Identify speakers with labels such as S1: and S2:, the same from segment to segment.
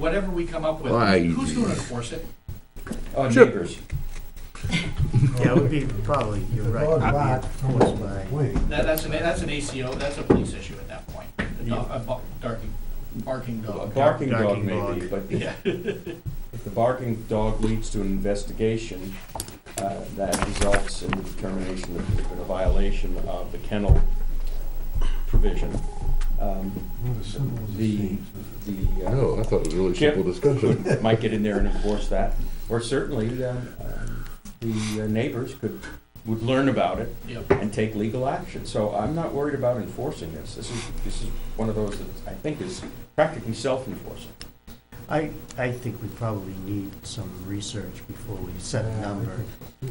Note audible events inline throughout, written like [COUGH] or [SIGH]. S1: whatever we come up with,
S2: Why?
S1: who's gonna enforce it?
S3: Oh, neighbors.
S4: Yeah, it would be probably, you're right.
S5: dog
S4: it'd be
S5: barked from
S4: enforced by-
S5: the wing.
S1: That, that's an, that's an ACO, that's a police issue at that point, a dog, a bar- barking, barking
S3: A
S1: dog.
S3: barking dog
S4: Barking
S3: maybe, but
S1: Yeah,
S3: if the barking dog leads to an investigation, uh, that results in the determination that there's been a violation of the kennel provision. Um,
S5: One of the symbols of
S3: The-
S5: things.
S3: The uh,
S2: No, I thought it was a really
S3: Chip.
S2: simple discussion.
S3: might get in there and enforce that, or certainly um, um, the uh, neighbors could, would learn about it
S1: yep.
S3: and take legal action. So I'm not worried about enforcing this. This is, this is one of those that I think is practically self-enforcing.
S4: I, I think we probably need some research before we set a number,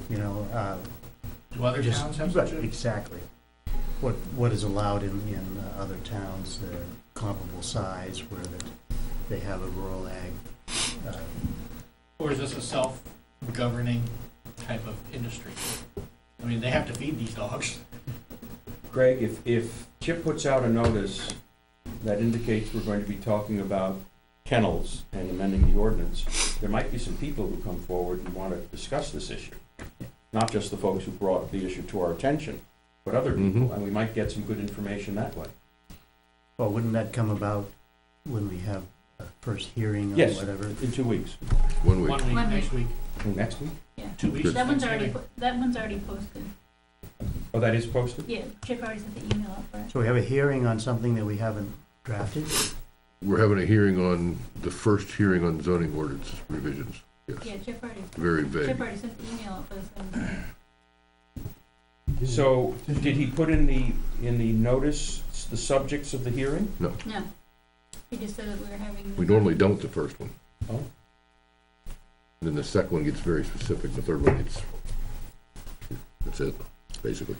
S4: you know, uh,
S1: Do other
S4: just-
S1: towns have
S4: right,
S1: such a?
S4: Exactly. What, what is allowed in, in uh, other towns that are comparable size where that they have a rural ag, uh,
S1: Or is this a self-governing type of industry? I mean, they have to feed these dogs. [LAUGHS]
S3: Greg, if, if Chip puts out a notice that indicates we're going to be talking about kennels and amending the ordinance, there might be some people who come forward and want to discuss this issue. Not just the folks who brought the issue to our attention, but other people,
S2: Mhm.
S3: and we might get some good information that way.
S4: well, wouldn't that come about when we have a first hearing or
S3: Yes.
S4: whatever?
S3: In two weeks,
S2: One week.
S1: One week,
S6: One
S1: next week,
S3: next week?
S1: two weeks.
S6: That one's already,
S1: Thanksgiving.
S6: po- that one's already posted.
S3: Oh, that is posted?
S6: Yeah, Chip already sent the email out for it.
S4: So we have a hearing on something that we haven't drafted?
S2: We're having a hearing on, the first hearing on zoning ordinance revisions.
S6: Yeah, Chip already,
S2: Very vague.
S6: Chip already sent the email out for the
S2: [CLEARS THROAT]
S6: seventeenth.
S3: So, did he put in the, in the notice, the subjects of the hearing?
S6: No. He just said that we were having.
S2: We normally don't the first one.
S3: Oh.
S2: Then the second one gets very specific, the third one gets, that's it, basically.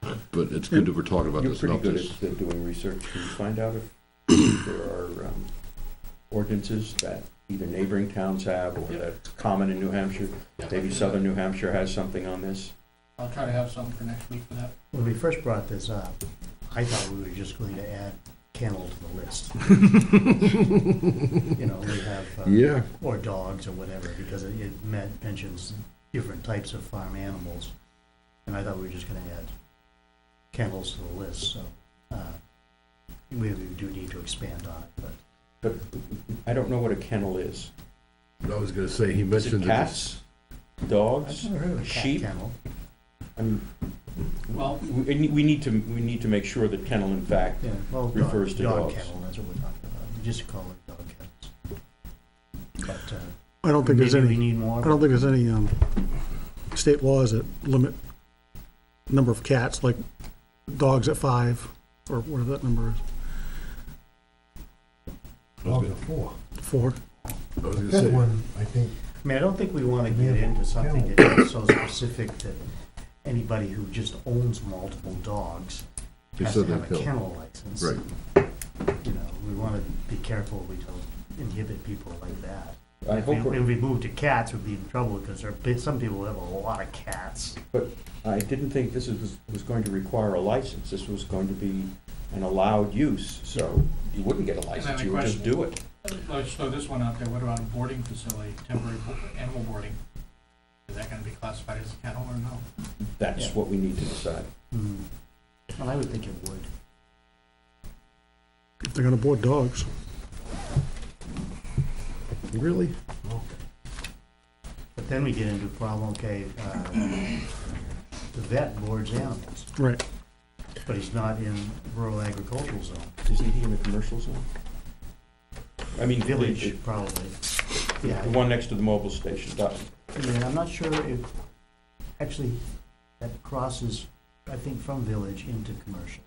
S2: But it's good that we're talking about
S3: You're
S2: this,
S3: pretty
S2: not
S3: good
S2: this.
S3: at uh, doing research. Can you find out if there are um, ordinances that either neighboring towns have or
S1: Yep.
S3: that's common in New Hampshire?
S1: Yeah, I'll
S3: Maybe
S1: do that.
S3: southern New Hampshire has something on this?
S1: I'll try to have some for next week for that.
S4: When we first brought this up, I thought we were just going to add kennel to the list. You know, we have, uh,
S2: Yeah,
S4: or dogs or whatever, because it- it men- mentions different types of farm animals. And I thought we were just gonna add kennels to the list, so, uh, we we do need to expand on it, but
S3: But I don't know what a kennel is.
S2: I was gonna say, he
S3: Is it
S2: mentioned. that it's-
S3: cats?
S4: I've
S3: Dogs?
S4: never heard of a cat
S3: Sheep?
S4: kennel.
S3: I mean,
S1: Well,
S3: We we need to, we need to make sure that kennel, in fact,
S4: Yeah, well, dog-
S3: Refers to
S4: dog
S3: dogs.
S4: kennel, that's what we're talking about, We just call it dog kennels. But, uh,
S7: I don't think there's
S4: maybe we
S7: any,
S4: need more.
S7: I don't think there's any um, state laws that limit number of cats, like dogs at five, or whatever that number is,
S5: Dog at four.
S7: four.
S2: I was gonna
S5: That
S2: say,
S5: one, I think,
S4: I mean, I don't think we want to get into something that is so specific that anybody who just owns multiple dogs
S2: Just
S4: has to
S2: so they
S4: have a
S2: feel-
S4: kennel license.
S2: Right.
S4: You know, we want to be careful we don't inhibit people like that.
S3: I
S4: If we-
S3: hope, we're-
S4: If we move to cats, we'd be in trouble because there are, bit- some people have a lot of cats.
S3: but I didn't think this was, was going to require a license. This was going to be an allowed use, so you wouldn't get a license,
S1: the
S3: you would just
S1: question-
S3: do it.
S1: let's throw uh, this one out there. What about a boarding facility, temporary bo- animal boarding? Is that gonna be classified as a kennel or no?
S3: That's what we need to decide.
S4: Hmm. Well, I would think it would.
S7: If they're gonna board dogs.
S2: Really?
S4: But then we get into a problem, okay, uh, the vet boards animals,
S7: Right.
S4: but he's not in rural agricultural zone.
S3: Isn't he in the commercial zone? I mean,
S4: Village,
S3: village,
S4: probably.
S3: the
S4: Yeah,
S3: one next to the mobile station, that-
S4: yeah, I'm not sure if, actually, that crosses, I think, from village into commercial.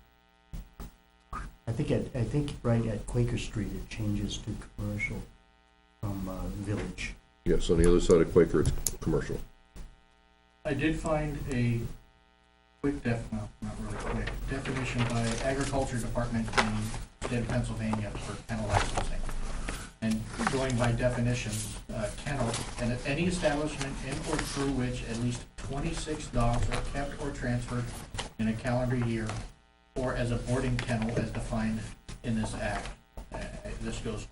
S4: I think at, I think right at Quaker Street, it changes to commercial from uh, village.
S2: Yes, on the other side of Quaker, it's commercial.
S1: I did find a quick def, no, not really quick, definition by Agriculture Department in state of Pennsylvania for kennel licensing. And going by definitions, uh, kennel, and any establishment in or through which at least twenty-six dogs are kept or transferred in a calendar year, or as a boarding kennel as defined in this act. I- I- this goes